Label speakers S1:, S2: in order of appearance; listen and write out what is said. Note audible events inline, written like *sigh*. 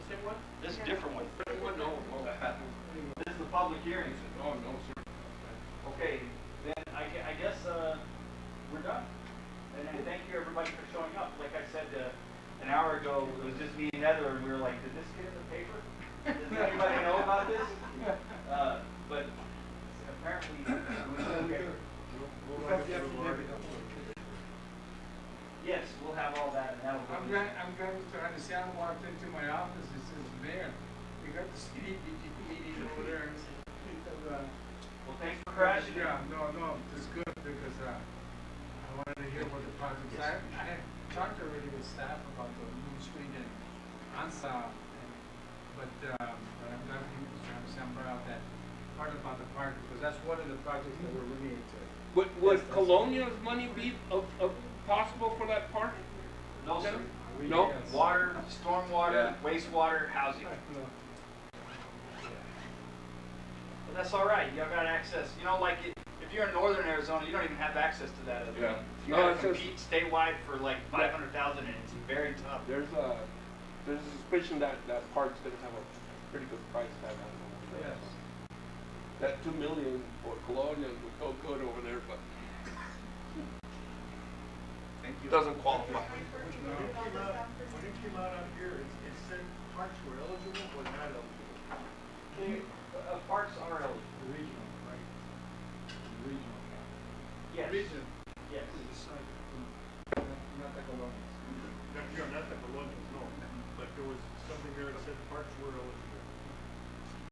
S1: one?
S2: This is a different one.
S1: Thirty-one, no. This is the public hearing.
S3: No, no, sir.
S1: Okay, then I, gue- I guess, uh, we're done. And, and thank you everybody for showing up. Like I said, uh, an hour ago, it was just me and Heather and we were like, did this get in the paper? Does anybody know about
S3: *laughs*
S1: this? Uh, but apparently, it was okay.
S3: We'll have the affidavit.
S1: Yes, we'll have all that and that'll.
S3: I'm
S1: be-
S3: glad, I'm glad Mr. Hanisyan walked into my office, he says, Mayor, we got the city DG *laughs* meeting over there. I said, "Uh,
S1: Well, thanks for crashing.
S3: Yeah, no, no, it's good because, uh, I wanted to hear what the projects, I, I had talked already with staff about the Moon Street and ANSA. and- But, um, but I'm glad you, Mr. Hanisyan brought out that part about the park because that's one of the projects that we're really into.
S4: Would, would Colonial's money be of, of Oh, possible for that park?
S2: No, sir.
S3: We-
S4: No.
S3: yes.
S2: Water, stormwater,
S4: Yeah.
S2: wastewater, housing.
S3: *laughs* No.
S2: But that's all right. Y'all got access. You know, like it, if you're in northern Arizona, you don't even have access to that. other
S4: Yeah.
S2: than- You
S4: No,
S2: gotta
S4: it's just-
S2: compete statewide for like five hundred thousand and it's very tough.
S4: There's a, there's a suspicion that that park's gonna have a pretty good price tag on it.
S3: Yes.
S4: That two million for Colonial would go good over there, but
S2: Thank
S4: it doesn't qualify.
S5: When it came out, when it came out up here, it, it said parks were eligible, but not eligible.
S1: They-
S3: uh,
S1: uh, Parks are eligible.
S3: Regional, right? Regional.
S1: Yes.
S3: Region.